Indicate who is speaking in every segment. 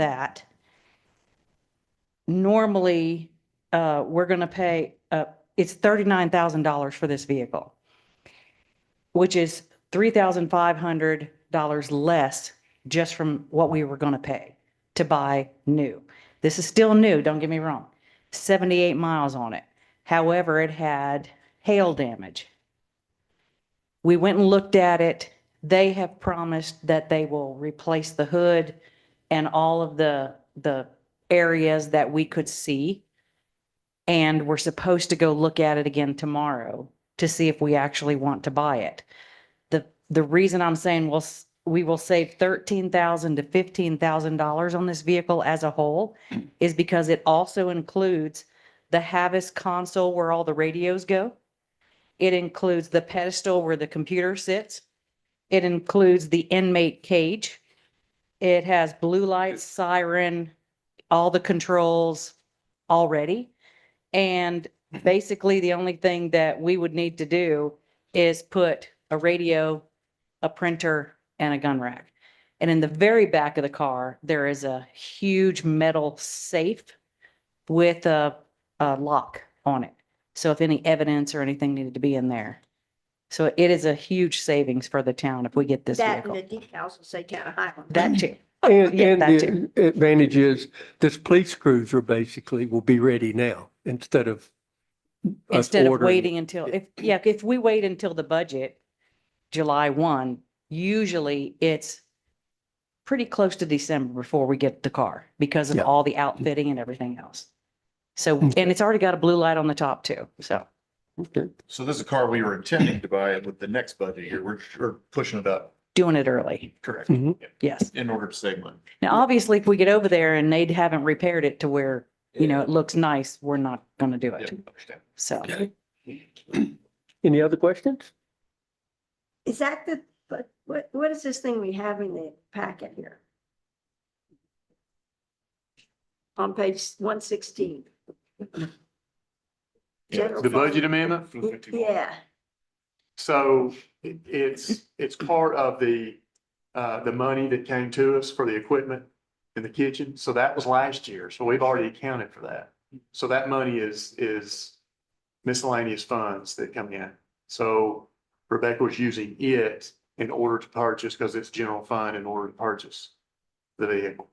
Speaker 1: that, normally, uh, we're going to pay, uh, it's thirty-nine thousand dollars for this vehicle, which is three thousand five hundred dollars less just from what we were going to pay to buy new. This is still new, don't get me wrong, seventy-eight miles on it. However, it had hail damage. We went and looked at it. They have promised that they will replace the hood and all of the, the areas that we could see. And we're supposed to go look at it again tomorrow to see if we actually want to buy it. The, the reason I'm saying we'll, s- we will save thirteen thousand to fifteen thousand dollars on this vehicle as a whole is because it also includes the Havas console where all the radios go. It includes the pedestal where the computer sits. It includes the inmate cage. It has blue lights, siren, all the controls already. And basically, the only thing that we would need to do is put a radio, a printer, and a gun rack. And in the very back of the car, there is a huge metal safe with a a lock on it. So if any evidence or anything needed to be in there. So it is a huge savings for the town if we get this
Speaker 2: That and the
Speaker 1: vehicle.
Speaker 2: decals will say town of Highland.
Speaker 1: That too.
Speaker 3: And,
Speaker 1: Yeah,
Speaker 3: and
Speaker 1: that too.
Speaker 3: the advantage is this police cruiser basically will be ready now instead of us
Speaker 1: Instead of
Speaker 3: ordering.
Speaker 1: waiting until, if, yeah, if we wait until the budget, July one, usually it's pretty close to December before we get the car because of
Speaker 3: Yeah. Hmm.
Speaker 1: all the outfitting and everything else. So, and it's already got a blue light on the top too, so.
Speaker 3: Okay.
Speaker 4: So this is a car we were intending to buy with the next budget year. We're, we're pushing it up.
Speaker 1: Doing it early,
Speaker 4: Correct.
Speaker 3: Mhm.
Speaker 1: yes.
Speaker 4: In order to save money.
Speaker 1: Now, obviously, if we get over there and they haven't repaired it to where, you know, it looks nice, we're not going to do
Speaker 4: Yeah,
Speaker 1: it,
Speaker 4: understand.
Speaker 1: so.
Speaker 3: Any other questions?
Speaker 2: Is that the, but what, what is this thing we have in the packet here? On page one sixteen.
Speaker 5: The budget amendment?
Speaker 2: Yeah,
Speaker 5: So it- it's, it's part of the, uh, the money that came to us for the equipment in the kitchen. So that was last year. So we've already accounted for that. So that money is, is miscellaneous funds that come in. So Rebecca was using it in order to purchase, because it's general fund in order to purchase the vehicle.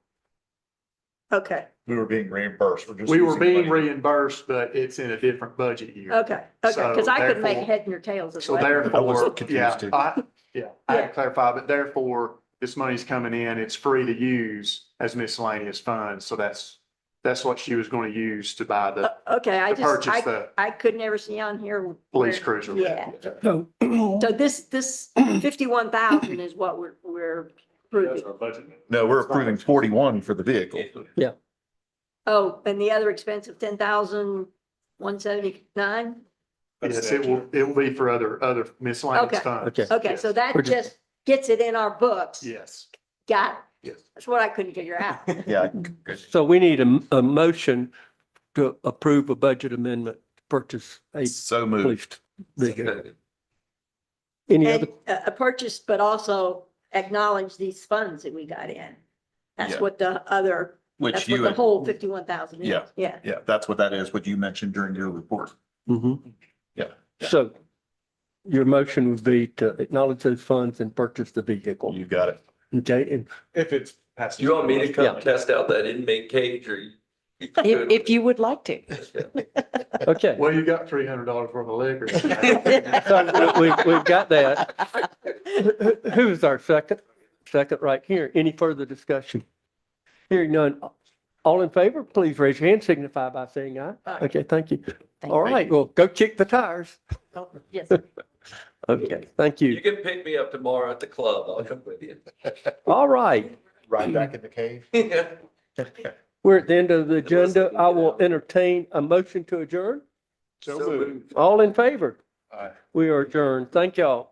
Speaker 2: okay,
Speaker 4: We were being reimbursed. We're just.
Speaker 5: We were
Speaker 4: using the
Speaker 5: being
Speaker 4: money.
Speaker 5: reimbursed, but it's in a different budget year.
Speaker 2: okay, okay, because
Speaker 5: So
Speaker 2: I couldn't make
Speaker 5: therefore-
Speaker 2: head nor tails of
Speaker 5: So
Speaker 2: what.
Speaker 4: I was
Speaker 5: therefore, yeah,
Speaker 4: confused too.
Speaker 5: I, yeah, I
Speaker 2: Yeah.
Speaker 5: had to clarify, but therefore, this money's coming in, it's free to use as miscellaneous funds, so that's, that's what she was gonna use to buy
Speaker 2: Uh,
Speaker 5: the,
Speaker 2: Okay, I
Speaker 5: to
Speaker 2: just,
Speaker 5: purchase
Speaker 2: I,
Speaker 5: the
Speaker 2: I could never see on here.
Speaker 5: police
Speaker 2: where-
Speaker 5: cruiser.
Speaker 2: Yeah,
Speaker 3: So
Speaker 2: so this, this fifty-one thousand is what we're, we're approving.
Speaker 4: No, we're approving forty-one for the vehicle.
Speaker 2: Oh, and the other expense of ten thousand, one seventy-nine?
Speaker 5: Yes, it will, it will be for other, other miscellaneous
Speaker 2: Okay.
Speaker 5: funds.
Speaker 3: Okay.
Speaker 2: Okay, so
Speaker 5: Yes.
Speaker 2: that
Speaker 3: We're just-
Speaker 2: just gets it in our books.
Speaker 5: Yes,
Speaker 2: Got it.
Speaker 5: yes.
Speaker 2: That's what I couldn't figure out.
Speaker 4: Yeah.
Speaker 3: so we need a, a motion to approve a budget amendment to purchase a
Speaker 4: So moved.
Speaker 3: police vehicle. Any other,
Speaker 2: And uh, a, a purchase, but also acknowledge these funds that we got in. That's
Speaker 4: Yeah.
Speaker 2: what the other,
Speaker 4: Which
Speaker 2: that's what
Speaker 4: you,
Speaker 2: the
Speaker 4: had-
Speaker 2: whole fifty-one thousand is.
Speaker 4: Yeah.
Speaker 2: Yeah.
Speaker 4: yeah, that's what that is, what you mentioned during your report.
Speaker 3: Mhm.
Speaker 4: Yeah.
Speaker 3: So your motion would be to acknowledge those funds and purchase the vehicle.
Speaker 4: You got it.
Speaker 3: Okay, and
Speaker 5: If it's. passed.
Speaker 6: You want me to
Speaker 3: Yeah.
Speaker 6: come test out that inmate cage or? you-
Speaker 1: If, if you would like to.
Speaker 3: Okay,
Speaker 5: Well, you got three hundred dollars worth of liquor.
Speaker 3: so we, we- we've got that. Who- Who's our second, second right here? Any further discussion? Hearing none. All in favor, please raise your hand, signify by saying aye.
Speaker 2: Aye.
Speaker 3: Okay, thank you.
Speaker 1: Thank
Speaker 3: All
Speaker 4: you.
Speaker 3: right, well, go kick the tires.
Speaker 2: Yes.
Speaker 3: Okay, thank
Speaker 6: You
Speaker 3: you.
Speaker 6: can pick me up tomorrow at the club. I'll come with you.
Speaker 3: All right,
Speaker 4: Right back in the cave.
Speaker 3: we're at the end of the agenda. I will entertain a motion to adjourn.
Speaker 5: So
Speaker 6: So
Speaker 5: moved.
Speaker 6: moved.
Speaker 3: All in favor?
Speaker 4: Aye.
Speaker 3: We are adjourned. Thank y'all.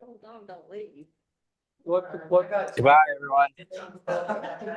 Speaker 2: Hold on, don't leave.
Speaker 3: What, what?
Speaker 7: Goodbye, everyone.